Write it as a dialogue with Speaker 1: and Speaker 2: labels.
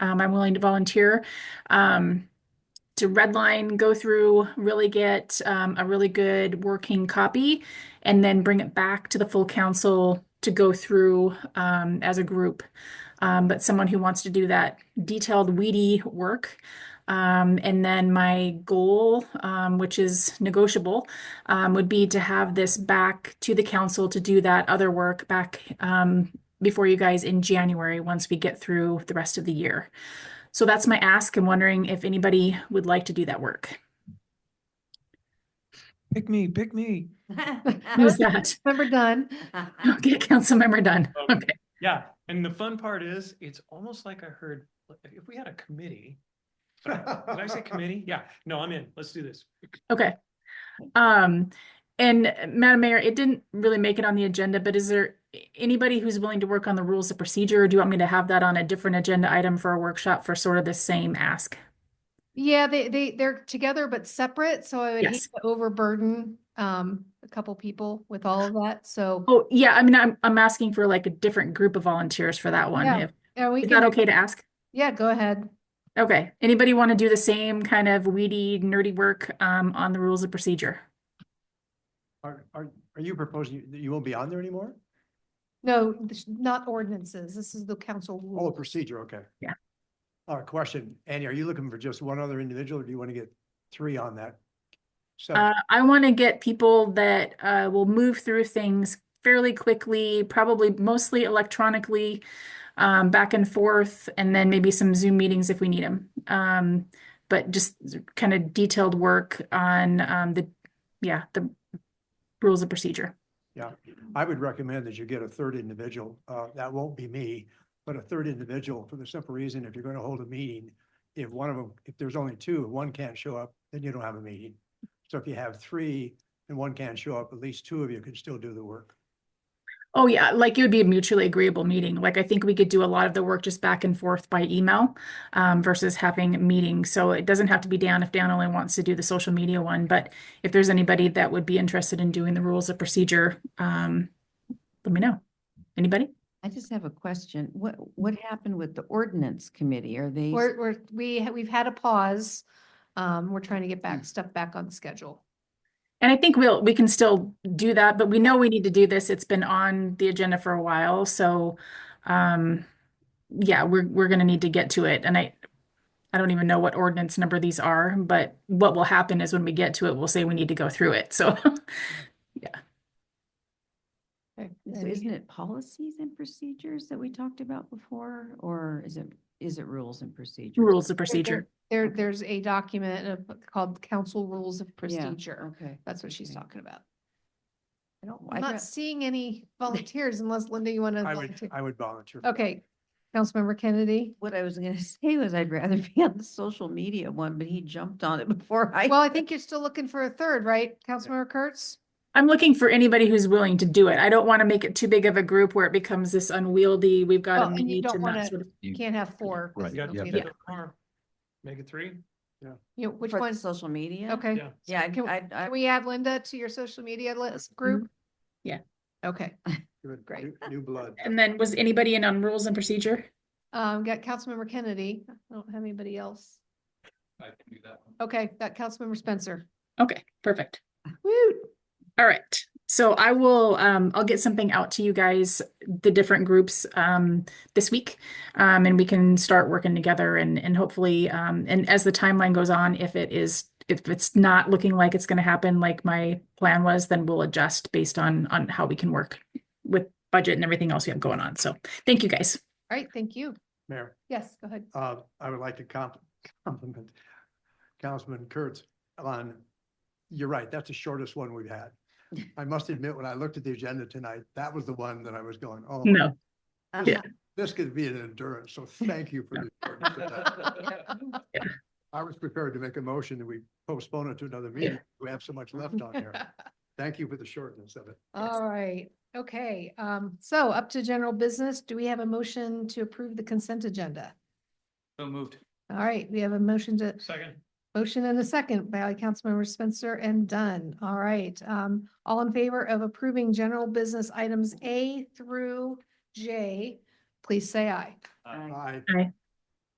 Speaker 1: Um, I'm willing to volunteer. Um, to redline, go through, really get um, a really good working copy, and then bring it back to the full council to go through um, as a group. Um, but someone who wants to do that detailed, weedy work. Um, and then my goal, um, which is negotiable, um, would be to have this back to the council to do that other work back um, before you guys in January once we get through the rest of the year. So that's my ask. I'm wondering if anybody would like to do that work.
Speaker 2: Pick me, pick me.
Speaker 3: Uh-huh.
Speaker 1: Who's that?
Speaker 3: Member Dunn.
Speaker 1: Okay, Councilmember Dunn.
Speaker 4: Um,
Speaker 1: Okay.
Speaker 4: Yeah, and the fun part is, it's almost like I heard, if we had a committee. Did I say committee? Yeah, no, I'm in. Let's do this.
Speaker 1: Okay. Um, and uh, Madam Mayor, it didn't really make it on the agenda, but is there a- anybody who's willing to work on the rules of procedure? Or do you want me to have that on a different agenda item for a workshop for sort of the same ask?
Speaker 3: Yeah, they, they, they're together but separate, so I would hate
Speaker 1: Yes.
Speaker 3: to overburden, um, a couple people with all of that, so.
Speaker 1: Oh, yeah, I mean, I'm, I'm asking for like a different group of volunteers for that one.
Speaker 3: Yeah,
Speaker 1: If-
Speaker 3: yeah, we
Speaker 1: Is that
Speaker 3: can-
Speaker 1: okay to ask?
Speaker 3: Yeah, go ahead.
Speaker 1: Okay, anybody want to do the same kind of weedy, nerdy work, um, on the rules of procedure?
Speaker 5: Are, are, are you proposing, you- you won't be on there anymore?
Speaker 3: No, this- not ordinances, this is the council
Speaker 5: Oh,
Speaker 3: rule.
Speaker 5: procedure, okay.
Speaker 1: Yeah.
Speaker 5: All right, question, Annie, are you looking for just one other individual, or do you want to get three on that? So,
Speaker 1: Uh, I want to get people that uh, will move through things fairly quickly, probably mostly electronically, um, back and forth, and then maybe some Zoom meetings if we need them. Um, but just kind of detailed work on um, the, yeah, the rules of procedure.
Speaker 5: yeah, I would recommend that you get a third individual, uh, that won't be me, but a third individual for the simple reason, if you're going to hold a meeting, if one of them, if there's only two, if one can't show up, then you don't have a meeting. So if you have three and one can't show up, at least two of you can still do the work.
Speaker 1: Oh yeah, like it would be a mutually agreeable meeting. Like I think we could do a lot of the work just back and forth by email um, versus having meetings. So it doesn't have to be Dan if Dan only wants to do the social media one. But if there's anybody that would be interested in doing the rules of procedure, um, let me know. Anybody?
Speaker 6: I just have a question. What, what happened with the ordinance committee? Are they,
Speaker 3: We're, we're, we, ha- we've had a pause, um, we're trying to get
Speaker 1: Hmm.
Speaker 3: back, stuff back on schedule.
Speaker 1: And I think we'll we can still do that, but we know we need to do this. It's been on the agenda for a while, so um, yeah, we're we're gonna need to get to it. And I I don't even know what ordinance number these are, but what will happen is when we get to it, we'll say we need to go through it. So
Speaker 3: Okay,
Speaker 6: Eh, so isn't it policies and procedures that we talked about before? Or is it, is it rules and procedures?
Speaker 1: rules of
Speaker 3: there-
Speaker 1: procedure.
Speaker 3: There, there's a document of- called Council Rules of
Speaker 6: Yeah,
Speaker 3: Procedure.
Speaker 6: Okay.
Speaker 3: That's what she's
Speaker 6: Okay.
Speaker 3: talking about.
Speaker 6: I don't,
Speaker 3: Uh, I'm not seeing any volunteers unless Linda, you want to
Speaker 5: I would,
Speaker 3: volunteer.
Speaker 5: I would volunteer. for that.
Speaker 3: Okay, Councilmember Kennedy.
Speaker 6: what I was gonna say was I'd rather be on the social media one, but he jumped on it before I.
Speaker 3: Well, I think you're still looking for a third, right? Councilmember Kurtz?
Speaker 1: I'm looking for anybody who's willing to do it. I don't want to make it too big of a group where it becomes this unwieldy, we've got
Speaker 3: Well,
Speaker 1: a
Speaker 3: and you
Speaker 1: meet
Speaker 3: don't
Speaker 1: and that
Speaker 3: wanna-
Speaker 1: sort of.
Speaker 3: You can't have four. 'cause
Speaker 4: You
Speaker 3: it'll
Speaker 4: got
Speaker 3: be
Speaker 4: to
Speaker 3: the-
Speaker 4: pick a car. Make it three?
Speaker 3: You know, which
Speaker 6: For the
Speaker 3: one?
Speaker 6: Social media?
Speaker 3: Okay.
Speaker 4: Yeah.
Speaker 6: Yeah, I'd-
Speaker 3: Can-
Speaker 6: I'd, I,
Speaker 3: Can we add Linda to your social media list group?
Speaker 6: Mm-hmm.
Speaker 1: Yeah.
Speaker 3: Okay,
Speaker 5: Give it
Speaker 3: Great.
Speaker 5: new- New blood.
Speaker 1: And then was anybody in on rules and procedure?
Speaker 3: um, got Councilmember Kennedy. I don't have anybody else.
Speaker 4: I can do that one.
Speaker 3: Okay, got Councilmember Spencer.
Speaker 1: Okay, perfect.
Speaker 3: Woo!
Speaker 1: All right. So I will um I'll get something out to you guys, the different groups um this week. Um and we can start working together and and hopefully um and as the timeline goes on, if it is if it's not looking like it's gonna happen like my plan was, then we'll adjust based on on how we can work with budget and everything else we have going on. So thank you guys.
Speaker 3: All right, thank you.
Speaker 5: Mayor,
Speaker 3: Yes, go ahead.
Speaker 5: uh, I would like to comp- compliment Councilman Kurtz on, you're right, that's the shortest one we've had. I must admit, when I looked at the agenda tonight, that was the one that I was going, oh,
Speaker 1: No.
Speaker 6: uh-huh.
Speaker 5: this could be an endurance, so thank you for the. endurance of that. I was prepared to make a motion that we postpone it to another meeting. We have so much left on here. Thank you for the shortness of it.
Speaker 3: All right, okay, um, so up to general business, do we have a motion to approve the consent agenda?
Speaker 4: So moved.
Speaker 3: All right, we have a motion to,
Speaker 4: Second.
Speaker 3: motion and a second by Councilmember Spencer and Dunn. All right, um, all in favor of approving general business items A through J, please say aye.
Speaker 5: I,